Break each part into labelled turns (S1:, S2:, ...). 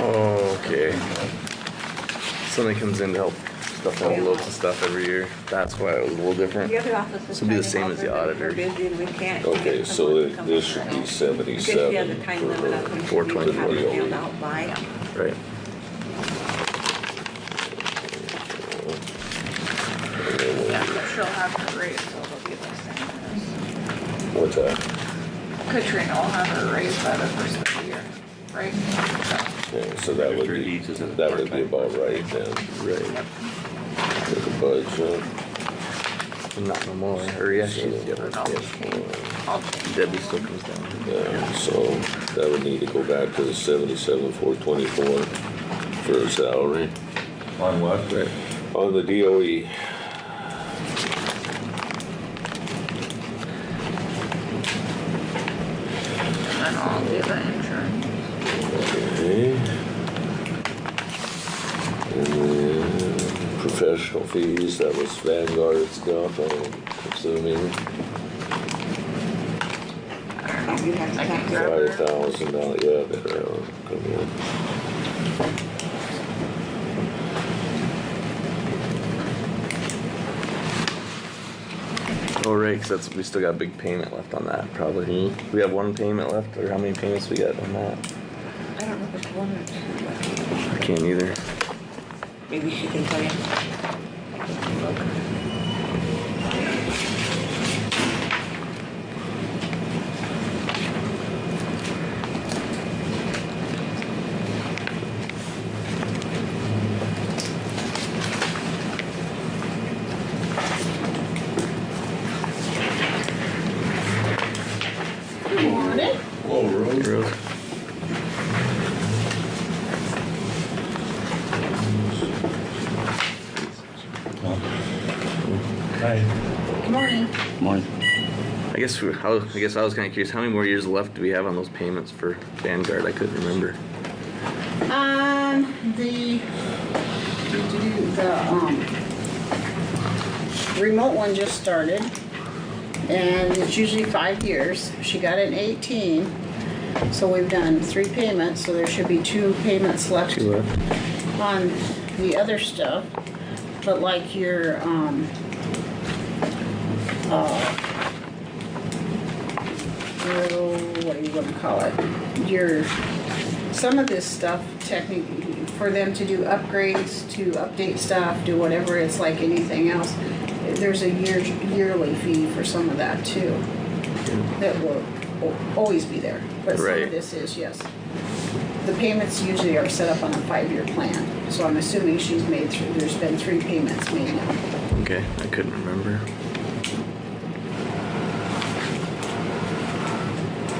S1: Okay. Somebody comes in to help stuff out loads of stuff every year. That's why it was a little different.
S2: The other office is.
S1: This will be the
S2: trying
S1: same
S2: to
S1: as the
S2: help her, but
S1: auditor.
S2: We're busy and we can't.
S3: Okay,
S2: get
S3: so
S2: someone to
S3: it-
S2: come
S3: this
S2: on
S3: should
S2: Friday.
S3: be
S2: Because she has a
S3: seventy-seven
S2: time limit up when
S3: for
S2: she needs to have it
S1: 4:24.
S2: filled out by.
S1: Right.
S4: Yeah, but she'll have her raise, so it'll be the same
S3: what's that?
S4: as Katrina will have her raise by the first of the year, right? So,
S3: Okay, so that would
S5: Three
S3: be,
S5: deeds is a
S3: that would be
S5: part-time.
S3: about right then,
S1: Right.
S3: for the budget.
S1: Not no more. Or yeah, she's
S4: but
S1: different.
S4: I'll
S1: Yeah.
S4: change- I'll change.
S1: Debbie still comes down.
S3: Yeah, so that would need to go back to the seventy-seven, four twenty-four for a salary.
S5: On what?
S1: Right.
S3: On the E. DOE,
S4: And then I'll do the insurance.
S3: okay. And then professional fees, that was Vanguard stuff, I'm assuming,
S2: You have to
S4: I
S2: talk
S4: can
S2: to
S4: grab
S2: her.
S4: her.
S3: five thousand dollars, yeah, better, uh, come in.
S1: Oh, right, 'cause that's, we still got a big payment left on that, probably.
S6: Hmm?
S1: We have one payment left, or how many payments we got on that?
S2: I don't know if it's one or two,
S1: I can't either.
S2: but maybe she can tell you.
S1: Road.
S5: Morning.
S1: I guess, we- how, I guess I was kinda curious, how many more years left do we have on those payments for Vanguard? I couldn't remember.
S7: Um, the, the, um, remote one just started, and it's usually five years. She got it in eighteen, so we've done three payments, so there should be two payments left
S1: left.
S7: on the other stuff. But like your, um, uh, your- what do you wanna call it? Your some of this stuff technically for them to do upgrades, to update stuff, do whatever it's like anything else. There's a year, yearly fee for some of that too. That will al- always be there, but some
S1: Right.
S7: of this is, yes. The payments usually are set up on a five-year plan, so I'm assuming she's made through, there's been three payments made now.
S1: Okay, I couldn't remember.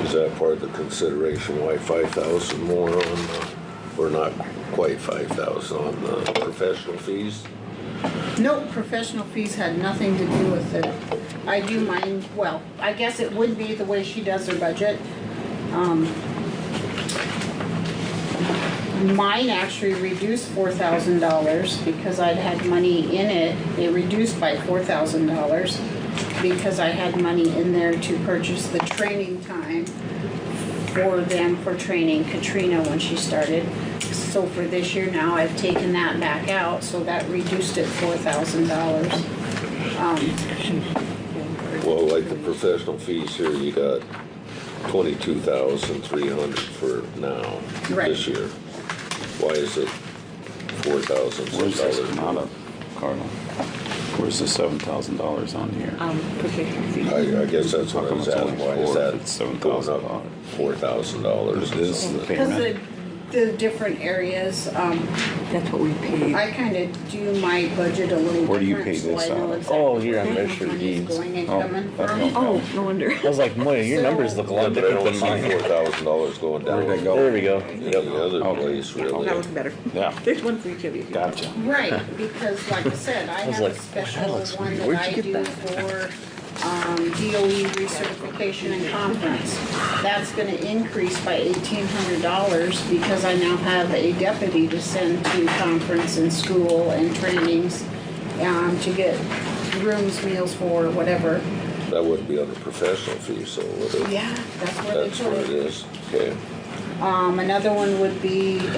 S3: Is that part of the consideration why five thousand more on the, or not quite five thousand on the professional fees?
S7: No, professional fees had nothing to do with it. I do mine, well, I guess it would be the way she does her budget. Um, Mine actually reduced four thousand dollars because I'd had money in it. It reduced by four thousand dollars because I had money in there to purchase the training time for them for training Katrina when she started. So for this year now, I've taken that back out, so that reduced it four thousand dollars.
S3: Well, like the professional fees here, you got twenty-two thousand three hundred for now, this
S7: Right.
S3: year. Why is it four thousand
S5: Where's
S3: six
S5: this
S3: dollars?
S5: come out of, Carla? Where's the seven thousand dollars on here?
S2: Um, professional fees.
S3: I, I guess that's what I
S5: How come
S3: was
S5: it's
S3: asking,
S5: only
S3: why
S5: four
S3: is
S5: if
S3: that
S5: it's $7,000?
S3: going up four thousand dollars?
S5: This is the
S7: Because
S5: payment.
S7: the, the different areas, um,
S2: That's what we paid.
S7: I kind of do my budget a little
S5: Where do you
S7: different,
S5: pay
S7: so
S5: this
S7: I know
S5: out?
S7: exactly.
S6: Oh, here on
S7: where my
S6: Measure
S7: money's
S6: Deeds.
S7: Going and
S5: Oh,
S7: coming
S5: that's
S7: from.
S5: no-
S2: Oh, no wonder.
S6: I was like, boy, your numbers look a lot
S3: But I
S6: different
S3: don't
S6: than
S3: see four
S6: mine.
S3: thousand dollars going down.
S5: Where'd they go?
S6: There we go.
S3: Any other
S5: Okay.
S3: place, really.
S2: That was better.
S5: Yeah.
S2: There's one for each of you.
S5: Gotcha.
S7: Right, because like I said, I
S6: was
S7: have a
S6: like, that
S7: special
S6: looks
S7: one
S6: weird.
S7: that
S6: Where'd
S7: I
S6: you get
S7: do
S6: that?
S7: for, um, DOE recertification and conference. That's gonna increase by eighteen hundred dollars because I now have a deputy to send to conference and school and trainings, um, to get rooms, meals for, whatever.
S3: That wouldn't be under professional fees, so would it?
S7: Yeah, that's where they
S3: That's
S7: put
S3: what it
S7: it.
S3: is, okay.
S7: Um, another one would be